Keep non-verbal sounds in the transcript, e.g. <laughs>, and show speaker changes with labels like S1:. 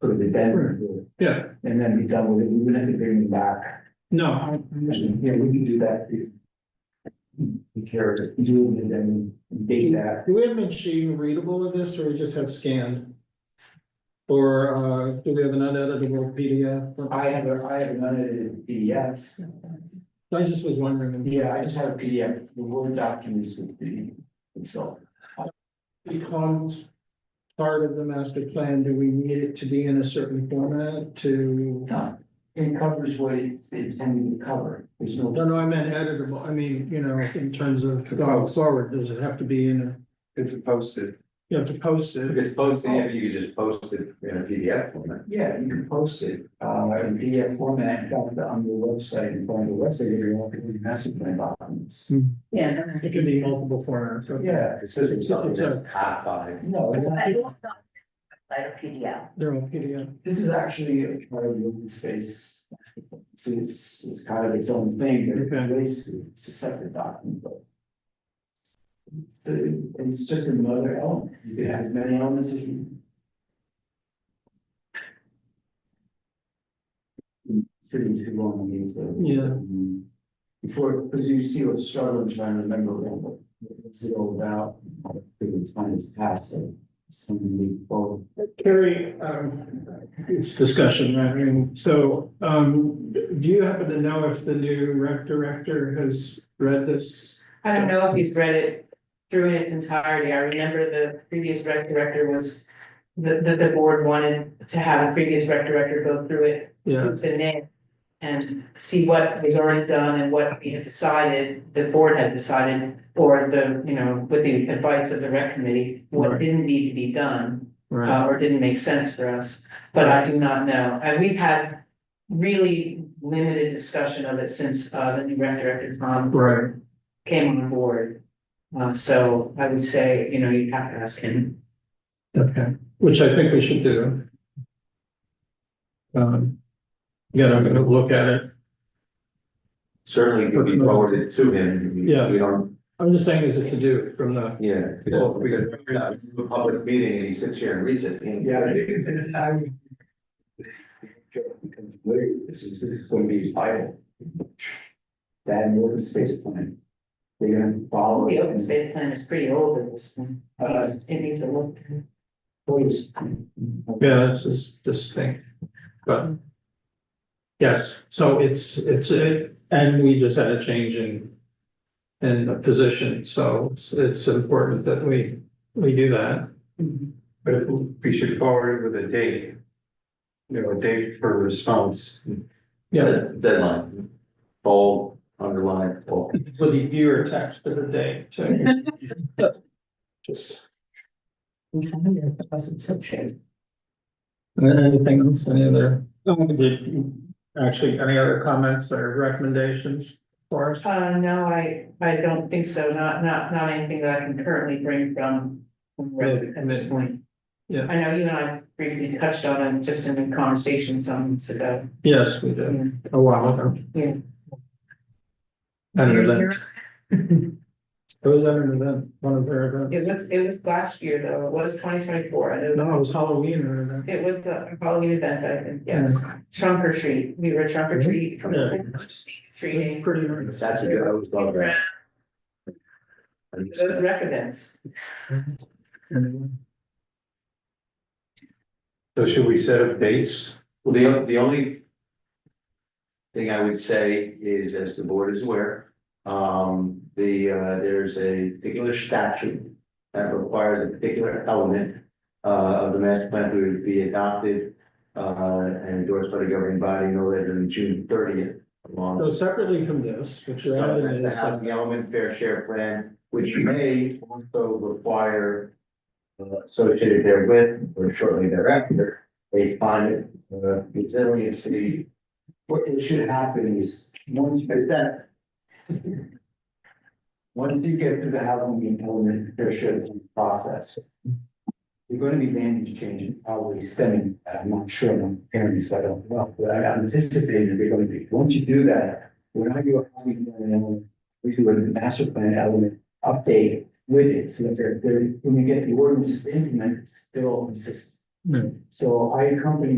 S1: the
S2: Right.
S1: ten,
S2: Yeah,
S1: and then be done with it, we wouldn't have to bring him back.
S2: no, I understand.
S1: Yeah, we can do that. if We care to do it and then date that.
S3: Do we have machine readable of this, or we just have scanned? Or, uh, do we have an uneditable PDF?
S1: I have a, I have an unedited PDF.
S3: I just was wondering,
S1: Yeah, I just have a PDF, the Word documents with the, and so.
S3: if it becomes part of the master plan, do we need it to be in a certain format to?
S1: no, It covers what it's intended to cover, there's no.
S3: No, no, I meant editable, I mean, you know, in terms of going forward, does it have to be in a,
S4: It's posted.
S3: you have to post
S4: If
S3: it?
S4: it's posted, yeah, you could just post it in a PDF format.
S1: Yeah, you can post it, uh, in PDF format, in fact, on your website, and on your website, if you want to, you master plan documents.
S3: Hmm.
S5: Yeah.
S3: It can be multiple formats, okay,
S1: Yeah,
S4: It's just
S3: It's-
S4: something
S3: it's a-
S4: that's hot by.
S1: no, it's not,
S5: But it was not like a PDF.
S3: they're all PDF.
S1: this is actually a part of the open space. So it's, it's kind of its own thing, that it
S3: Okay.
S1: relates to, it's a separate document, but. So it's just another element, you can have as many elements as you. Sitting too long, on need to.
S3: Yeah.
S1: Um, Before, because you see what struggle and trying to remember what, what's it all about, I think it's time has passed, so. Something we both
S3: Carrie, um, it's discussion, right? I mean, so, um, do you happen to know if the new rec director has read this?
S6: I don't know if he's read it through in its entirety. I remember the previous rec director was. The, the, the board wanted to have a previous rec director go through it,
S3: Yeah,
S6: with the name. And see what was already done and what we had decided, the board had decided, or the, you know, with the advice of the rec committee. What
S3: Right.
S6: didn't need to be done
S3: right,
S6: uh, or didn't make sense for us, but I do not know. And we've had really limited discussion of it since, uh, the new rec director, Tom,
S3: Uh, right,
S6: came on board. Uh, so I would say, you know, you have to ask him.
S3: okay, which I think we should do. Um, yeah, I'm gonna look at it.
S4: Certainly could be forwarded to him. We-
S3: Yeah.
S4: We don't,
S3: I'm just saying as a to do from the,
S4: yeah.
S3: Well,
S4: we could- yeah, we do A public meeting and he sits here and reads it. and-
S1: Yeah.
S4: This is, this is gonna be his Bible.
S1: That and the open space plan. They're gonna follow.
S6: The open space plan is pretty old at this point. It
S1: Uh,
S6: needs- It needs a look.
S1: please.
S3: yeah, this is this thing, but. Yes, so it's, it's, it, and we just had a change in. In the position, so it's, it's important that we, we do that.
S4: But we should forward it with a date. You know, a date for response.
S3: Yeah,
S4: Deadline. Bold, underline, bold.
S3: with the viewer text for the day too. <laughs> Just. Anything else, any other, um, did, actually, any other comments or recommendations for us?
S6: Uh, no, I, I don't think so. Not, not, not anything that I can currently bring from. from rec At this point.
S3: Yeah.
S6: I know you and I briefly touched on it just in a conversation some months ago.
S3: Yes, we did, a while ago.
S6: Yeah.
S3: At an event. <laughs> It was at an event, one of their
S6: It
S3: events.
S6: was, it was last year though, it was twenty twenty-four, I don't know.
S3: No, it was Halloween or an event.
S6: It was the Halloween event, I think, yes, trunk or treat, we were trunk or treat. from
S3: Yeah. It was
S6: Treating,
S3: pretty nice.
S4: That's a good, I always love that.
S6: those rec events.
S4: So should we set up dates? Well, the, the only. Thing I would say is, as the board is aware, um, the, uh, there's a particular statute. That requires a particular element, uh, of the master plan to be adopted. Uh, and endorsed by the governing body no later than June thirtieth. Along
S3: So separately from this, which
S4: so
S3: are added
S4: That's
S3: in
S4: the
S3: this,
S4: housing element fair share plan, which may also require. uh, Associated therewith or shortly thereafter, a fund, uh, resiliency.
S1: What it should happen is, once you
S4: Is that,
S1: once you get through the housing element, there should be a process. There're gonna be land use changes, probably stemming, I'm not sure, I'm hearing this, I don't know, but I anticipate that they're gonna be, once you do that. When I do a housing plan element, we do a master plan element update with it, so that they're, they're, when we get the ordinances implemented, it's still consistent.
S3: Hmm.
S1: So I accompany